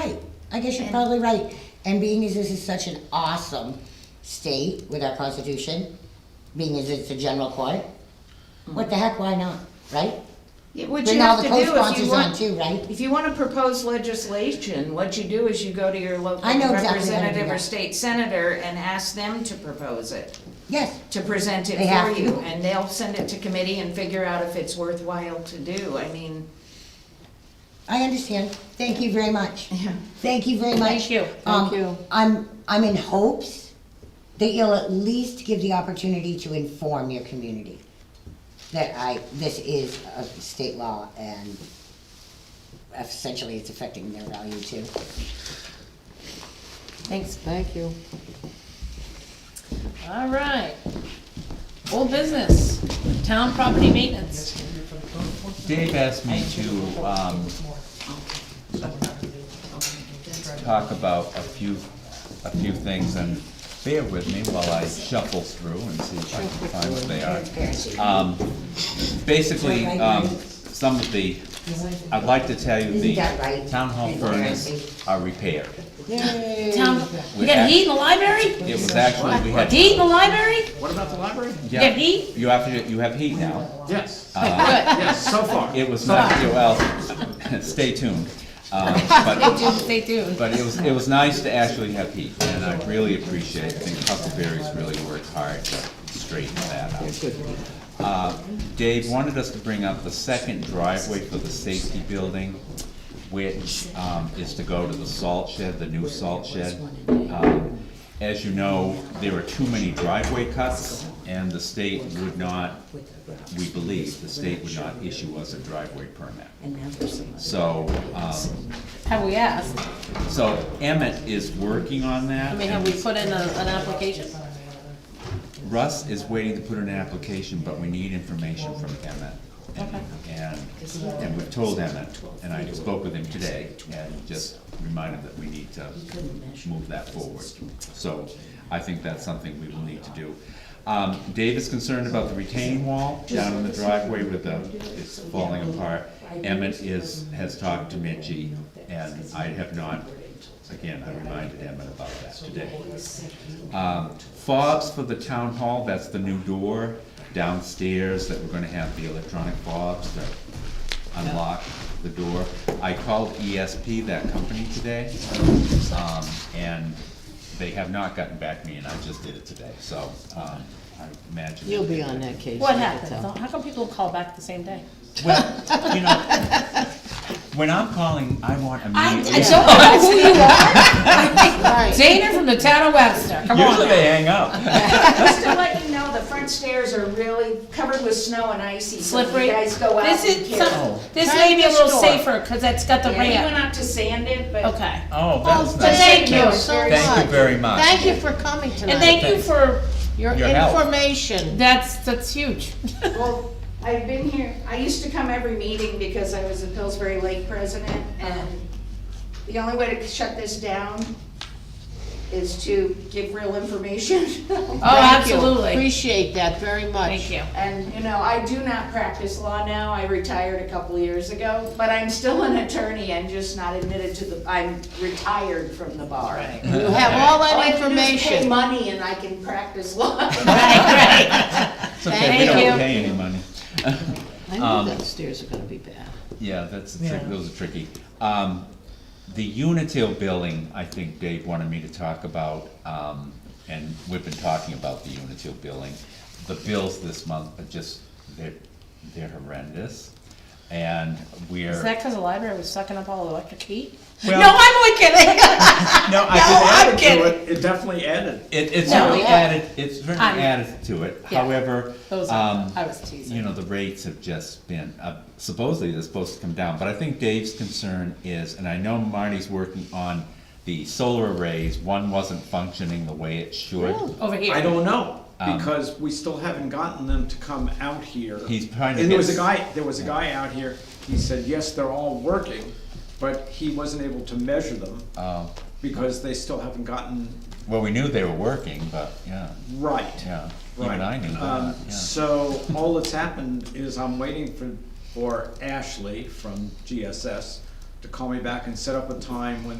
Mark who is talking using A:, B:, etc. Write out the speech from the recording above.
A: I guess you're
B: And-
A: probably right. And being as this is such an awesome state with our constitution, being as it's a general court, what the heck, why not, right?
B: Yeah, What
A: Bring
B: you
A: all
B: have
A: the
B: to do if you
A: co-sponsors on
B: want,
A: too, right?
B: if you wanna propose legislation, what you do is you go to your local
A: I know exactly how to do
B: representative or
A: that.
B: state senator and ask them to propose it,
A: Yes,
B: to present it
A: They have
B: for you.
A: to.
B: And they'll send it to committee and figure out if it's worthwhile to do, I mean,
A: I understand. Thank you very much. Thank you very much.
C: Thank you.
A: Um,
C: Thank you.
A: I'm, I'm in hopes that you'll at least give the opportunity to inform your community that I, this is a state law and essentially it's affecting their value too.
C: Thanks. Thank you. All right. Old business, town property maintenance.
D: Dave asked me to, um, talk about a few, a few things, and bear with me while I shuffle through and see if I can find what they are. Um, Basically, um, some of the, I'd like to tell you,
A: Isn't
D: the
A: that right?
D: town hall furnace uh, are repaired.
C: Town,
D: We
C: you got
D: have-
C: heat in the library?
D: It was actually, we had.
C: Heat in the library?
E: What about the library?
D: Yeah,
C: you have heat?
D: You have to, you have heat now.
E: Yes,
D: Uh,
E: yes, so far.
D: It was not, well, stay tuned. Um, but-
C: Stay tuned.
D: But it was, it was nice to actually have heat, and I really appreciate it. I think Huckleberry's really worked hard to straighten that out. Uh, Dave wanted us to bring up the second driveway for the safety building, which um, is to go to the salt shed, the new salt shed. Um, As you know, there are too many driveway cuts, and the state would not, we believe, the state would not issue us a driveway permit. So, um,
C: Have we asked?
D: so Emmett is working on that.
C: I mean, have we put in a, an application?
D: Russ is waiting to put in an application, but we need information from Emmett. And- And, and we've told Emmett, and I spoke with him today, and just reminded that we need to move that forward. So I think that's something we will need to do. Um, Dave is concerned about the retaining wall down in the driveway with the, it's falling apart. Emmett is, has talked to Mitchy, and I have not, again, I reminded Emmett about that today. Um, Fobs for the town hall, that's the new door downstairs that we're gonna have the electronic fobs that unlock the door. I called ESP, that company today, um, and they have not gotten back to me, and I just did it today, so, um, I imagine.
F: You'll be on that case.
C: What
F: I can
C: happens?
F: tell.
C: How come people call back the same day?
D: Well, you know, when I'm calling, I want immediate.
C: know who you are. Dana from the town of Webster, come on.
D: Usually they hang up.
B: just to let you know, the front stairs are really covered with snow and icy, so if
C: Slippery.
B: you guys go out
C: This
B: and
C: is,
B: careful.
C: some- this may be a little
B: Store.
C: safer, cause it's got the
B: Yeah, he went
C: ramp.
B: out to sand it, but.
C: Okay.
D: Oh, that's nice.
F: Thank you so much.
D: Thank you very much.
F: Thank you for coming tonight.
C: And thank you for,
F: Your
D: Your help.
F: information.
C: that's, that's huge.
B: Well, I've been here, I used to come every meeting because I was a Pillsbury Lake president, and the only way to shut this down is to give real information.
C: Oh,
F: Thank you.
C: absolutely.
F: Appreciate that very much.
C: Thank you.
B: And, you know, I do not practice law now, I retired a couple years ago, but I'm still an attorney and just not admitted to the, I'm retired from the bar.
F: You have all
B: All
F: that
B: I can do is pay
F: information.
B: money and I can practice law.
C: Right, right.
D: It's okay, we
C: Thank you.
D: don't pay any money. Um,
F: I knew that stairs are gonna be bad.
D: Yeah, that's, a trick- those are tricky. Um, the Unitil billing, I think Dave wanted me to talk about, um, and we've been talking about the Unitil billing. The bills this month are just, they're, they're horrendous, and we're.
C: Is that because the library was sucking up all the electric heat?
D: Well-
C: no, I'm only kidding.
D: No, I
C: No, I'm
E: Added to
C: kidding.
E: it, It definitely added.
D: It, it's
C: No,
D: certainly
C: yeah.
D: added, it's certainly
C: I'm-
D: added to it,
C: Yeah.
D: however,
C: Those are-
D: um,
C: I was teasing.
D: you know, the rates have just been, uh, supposedly they're supposed to come down, but I think Dave's concern is, and I know Marty's working on the solar arrays, one wasn't functioning the way it should.
C: Over here.
E: I don't know,
D: Um,
E: because we still haven't gotten them to come out here.
D: He's trying to
E: And there was
D: get-
E: a guy, there was a guy out here, he said, yes, they're all working, but he wasn't able to measure them
D: Uh,
E: because they still haven't gotten
D: well, we knew they were working, but, yeah,
E: right.
D: yeah,
E: Right.
D: even I knew
E: Um,
D: that, yeah.
E: So all that's happened is I'm waiting for, for Ashley from GSS to call me back and set up a time when